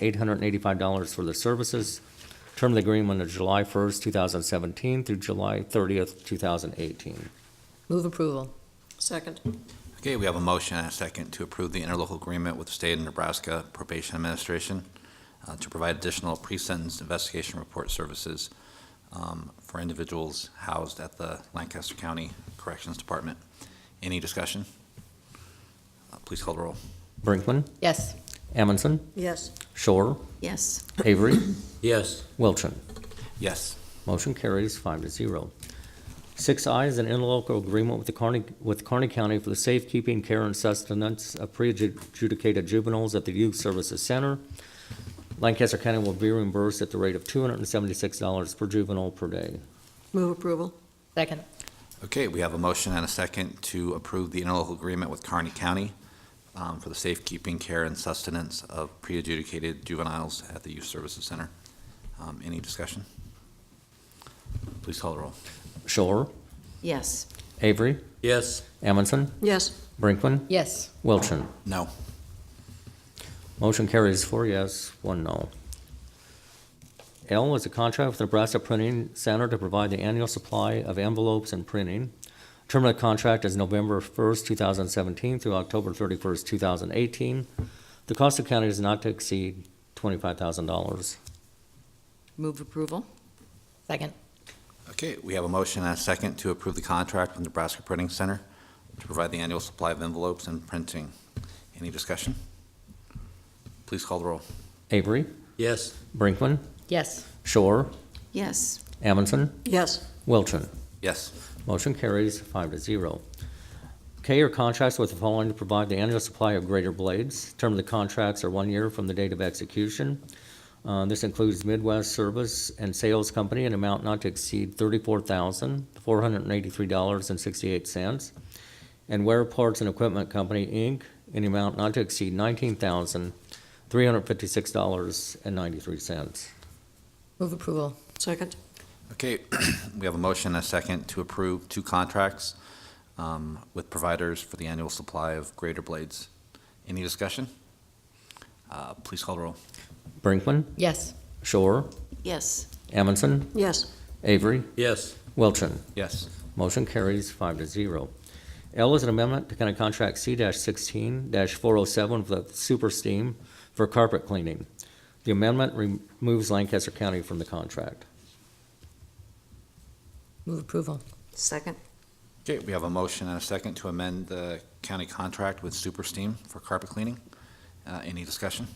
eight hundred and eighty-five dollars for the services. Term of the agreement is July first, two thousand seventeen through July thirtieth, two thousand eighteen. Move approval. Second. Okay, we have a motion and a second to approve the interlocal agreement with the State of Nebraska Probation Administration uh, to provide additional pre-sentence investigation report services um, for individuals housed at the Lancaster County Corrections Department. Any discussion? Uh, Please call the roll. Brinkman, Yes. Amundson, Yes. Shore, Yes. Avery, yes, Wilchin. Yes. Motion carries five to zero. Six I is an interlocal agreement with the Carney, with Kearney County for the safekeeping, care, and sustenance of pre-adjudicated juveniles at the Youth Services Center. Lancaster County will be reimbursed at the rate of two hundred and seventy-six dollars per juvenile per day. Move approval. Second. Okay, we have a motion and a second to approve the interlocal agreement with Kearney County um, for the safekeeping, care, and sustenance of pre-adjudicated juveniles at the Youth Services Center. Um, Any discussion? Please call the roll. Shore, Yes. Avery, yes, Amundson, Yes. Brinkman, Yes. Wilchin. No. Motion carries four yes, one no. L is a contract with Nebraska Printing Center to provide the annual supply of envelopes and printing. Term of the contract is November 1st, 2017 through October 31st, 2018. The cost of county is not to exceed $25,000. Move approval. Second. Okay, we have a motion and a second to approve the contract with Nebraska Printing Center to provide the annual supply of envelopes and printing. Any discussion? Please call the roll. Avery, yes, Brinkman, Yes. Shore, Yes. Amundson, Yes. Wilchin. Yes. Motion carries five to zero. K are contracts with the following to provide the annual supply of greater blades. Term of the contracts are one year from the date of execution. Uh, This includes Midwest Service and Sales Company in amount not to exceed thirty-four thousand, four hundred and eighty-three dollars and sixty-eight cents. And Ware Parts and Equipment Company, Inc., in amount not to exceed nineteen thousand, three hundred and fifty-six dollars and ninety-three cents. Move approval. Second. Okay, we have a motion and a second to approve two contracts um, with providers for the annual supply of grader blades. Any discussion? Uh, Please call the roll. Brinkman, Yes. Shore, Yes. Amundson, Yes. Avery, yes, Wilchin. Yes. Motion carries five to zero. L is an amendment to county contract C sixteen four oh seven with Super Steam for carpet cleaning. The amendment removes Lancaster County from the contract. Move approval. Second. Okay, we have a motion and a second to amend the county contract with Super Steam for carpet cleaning. Uh, Any discussion?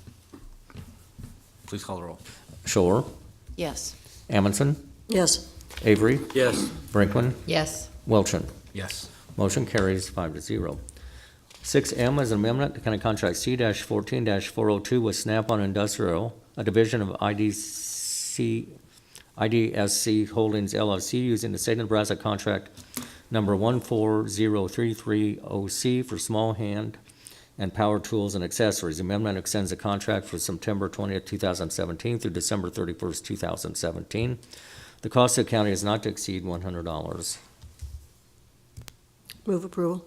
Please call the roll. Shore, Yes. Amundson, Yes. Avery, yes, Brinkman, Yes. Wilchin. Yes. Motion carries five to zero. Six M is an amendment to county contract C fourteen four oh two with Snap-on Industrial, a division of IDC, IDSC Holdings LLC, using the state of Nebraska contract number one four zero three three O C for small hand and power tools and accessories. Amendment extends the contract for September twentieth, two thousand seventeen through December thirty-first, two thousand seventeen. The cost of the county is not to exceed one hundred dollars. Move approval.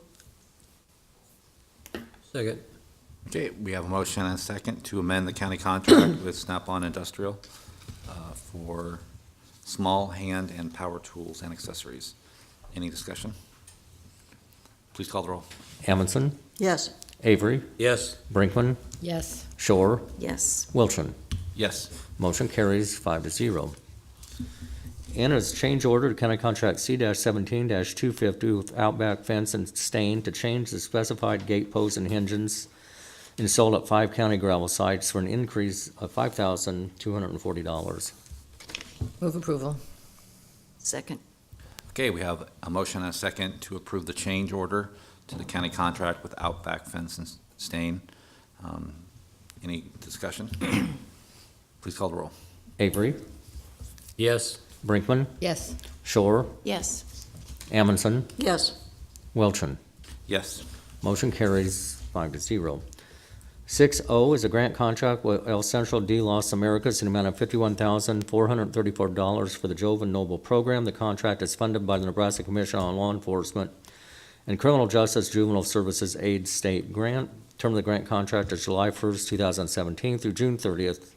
second, Okay, we have a motion and a second to amend the county contract with Snap-on Industrial uh, for small hand and power tools and accessories. Any discussion? Please call the roll. Amundson, Yes. Avery, yes, Brinkman, Yes. Shore, Yes. Wilchin. Yes. Motion carries five to zero. And is change order to county contract C seventeen two fifty with Outback Fence and Stain to change the specified gate posts and hinges installed at five county gravel sites for an increase of five thousand two hundred and forty dollars. Move approval. Second. Okay, we have a motion and a second to approve the change order to the county contract with Outback Fence and Stain. Um, Any discussion? Please call the roll. Avery, yes, Brinkman, Yes. Shore, Yes. Amundson, Yes. Wilchin. Yes. Motion carries five to zero. Six O is a grant contract with El Central de Los Americas in the amount of fifty-one thousand, four hundred and thirty-four dollars for the Joven Noble Program. The contract is funded by the Nebraska Commission on Law Enforcement and Criminal Justice Juvenile Services Aid State Grant. Term of the grant contract is July 1st, 2017 through June 30th,